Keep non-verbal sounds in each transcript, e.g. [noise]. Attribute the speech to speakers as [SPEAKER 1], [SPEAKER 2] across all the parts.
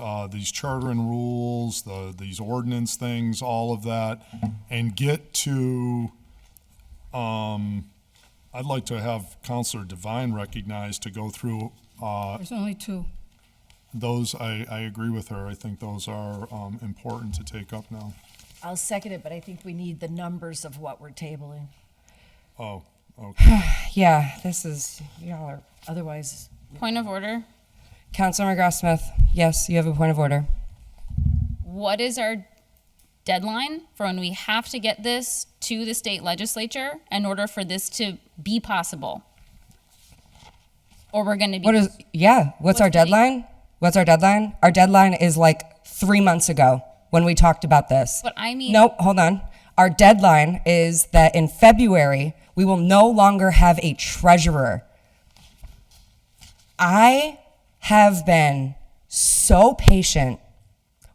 [SPEAKER 1] uh, these charter and rules, the, these ordinance things, all of that, and get to, um, I'd like to have Counselor Devine recognized to go through, uh,
[SPEAKER 2] There's only two.
[SPEAKER 1] those, I, I agree with her. I think those are, um, important to take up now.
[SPEAKER 3] I'll second it, but I think we need the numbers of what we're tabling.
[SPEAKER 1] Oh,
[SPEAKER 4] Yeah, this is, y'all are,
[SPEAKER 3] Otherwise,
[SPEAKER 5] Point of order.
[SPEAKER 4] Councilmember Gross Smith, yes, you have a point of order.
[SPEAKER 5] What is our deadline for when we have to get this to the state legislature in order for this to be possible? Or we're going to be.
[SPEAKER 4] What is, yeah, what's
[SPEAKER 5] What's
[SPEAKER 4] our
[SPEAKER 5] the date?
[SPEAKER 4] deadline? What's our deadline? Our deadline is like three months ago when we talked about this.
[SPEAKER 5] But I mean-
[SPEAKER 4] Nope, hold on. Our deadline is that in February, we will no longer have a treasurer. I have been so patient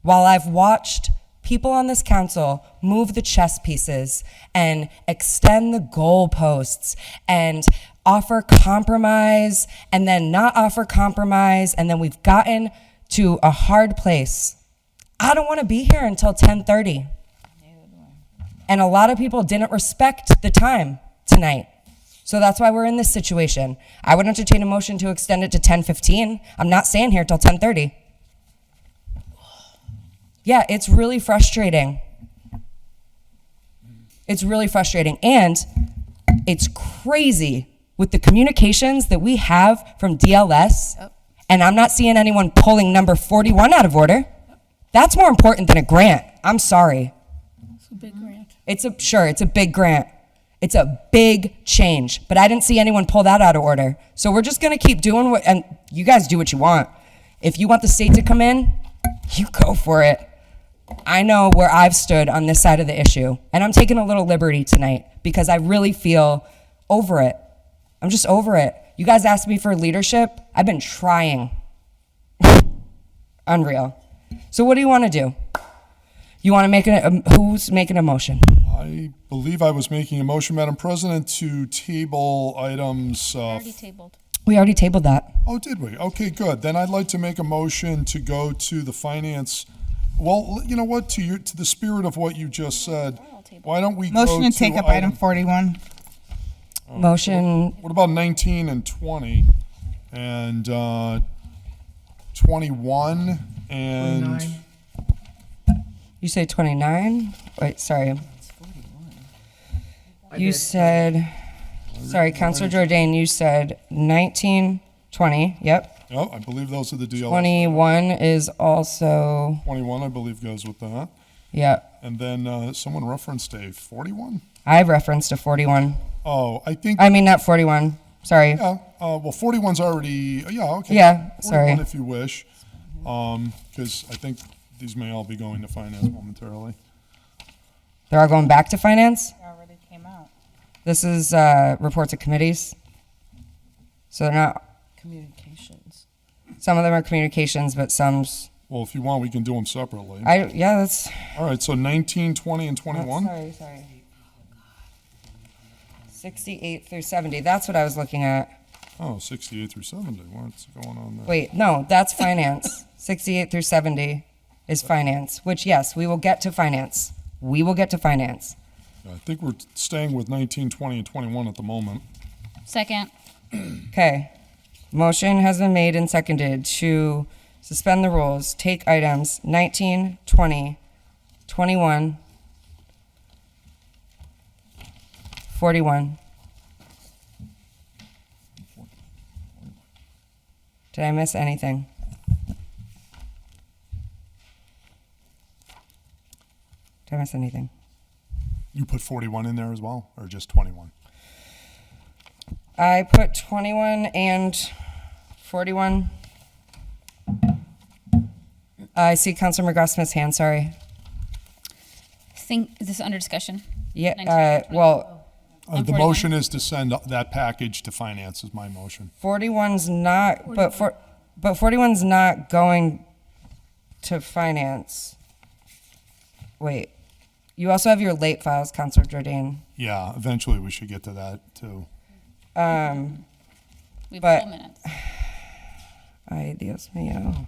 [SPEAKER 4] while I've watched people on this council move the chess pieces and extend the goalposts and offer compromise and then not offer compromise and then we've gotten to a hard place. I don't want to be here until 10:30. And a lot of people didn't respect the time tonight. So that's why we're in this situation. I would entertain a motion to extend it to 10:15. I'm not staying here till 10:30. Yeah, it's really frustrating. It's really frustrating. And it's crazy with the communications that we have from DLS. And I'm not seeing anyone pulling number 41 out of order. That's more important than a grant. I'm sorry.
[SPEAKER 2] It's a big grant.
[SPEAKER 4] It's a sure, it's a big grant. It's a big change, but I didn't see anyone pull that out of order. So we're just gonna keep doing what, and you guys do what you want. If you want the state to come in, you go for it. I know where I've stood on this side of the issue, and I'm taking a little liberty tonight because I really feel over it. I'm just over it. You guys asked me for leadership. I've been trying. [laughs] Unreal. So what do you want to do? You want to make a um, who's making a motion?
[SPEAKER 1] I believe I was making a motion, Madam President, to table items, uh,
[SPEAKER 5] Already tabled.
[SPEAKER 4] We already tabled that.
[SPEAKER 1] Oh, did we? Okay, good. Then I'd like to make a motion to go to the finance. Well, you know what, to your, to the spirit of what you just said, why don't we go to?
[SPEAKER 6] Motion to take up item 41.
[SPEAKER 4] Motion,
[SPEAKER 1] What about nineteen and twenty and, uh, twenty-one and
[SPEAKER 4] you say 29? Wait, sorry. You said, sorry, Counselor Jordan, you said 19, 20, yep.
[SPEAKER 1] Oh, I believe those are the DLS.
[SPEAKER 4] 21 is also,
[SPEAKER 1] Twenty-one, I believe, goes with that.
[SPEAKER 4] yep.
[SPEAKER 1] And then, uh, someone referenced a forty-one?
[SPEAKER 4] I referenced a 41.
[SPEAKER 1] Oh, I think,
[SPEAKER 4] I mean, not 41, sorry.
[SPEAKER 1] yeah, uh, well, 41's already, yeah, okay.
[SPEAKER 4] Yeah, sorry.
[SPEAKER 1] 41 If you wish, um, because I think these may all be going to finance momentarily.
[SPEAKER 4] They're all going back to finance?
[SPEAKER 6] Already came out.
[SPEAKER 4] This is, uh, reports of committees. So they're not,
[SPEAKER 3] communications.
[SPEAKER 4] some of them are communications, but some's,
[SPEAKER 1] Well, if you want, we can do them separately.
[SPEAKER 4] I, yeah, that's,
[SPEAKER 1] All right, so 19, 20, and 21?
[SPEAKER 4] Sorry, sorry. Sixty-eight through seventy, that's what I was looking at.
[SPEAKER 1] Oh, 68 through 70, what's going on there?
[SPEAKER 4] Wait, no, that's finance. Sixty-eight through seventy is finance, which yes, we will get to finance. We will get to finance.
[SPEAKER 1] Yeah, I think we're staying with 19, 20, and 21 at the moment.
[SPEAKER 5] Second.
[SPEAKER 4] Okay. Motion has been made and seconded to suspend the rules, take items 19, 20, 21, 41. Did I miss anything? Did I miss anything?
[SPEAKER 1] You put 41 in there as well, or just 21?
[SPEAKER 4] I put 21 and 41. I see Councilor McGrath-Smith's hand, sorry.
[SPEAKER 5] Think, is this under discussion?
[SPEAKER 4] Yeah,
[SPEAKER 5] 19,
[SPEAKER 4] uh, well,
[SPEAKER 1] Uh, The
[SPEAKER 5] 41.
[SPEAKER 1] motion is to send that package to finance is my motion.
[SPEAKER 4] 41's not, but for, but 41's not going to finance. Wait, you also have your late files, Councilor Jordan.
[SPEAKER 1] Yeah, eventually we should get to that, too.
[SPEAKER 5] We have
[SPEAKER 4] But-
[SPEAKER 5] four minutes.
[SPEAKER 4] Ay, Dios mío.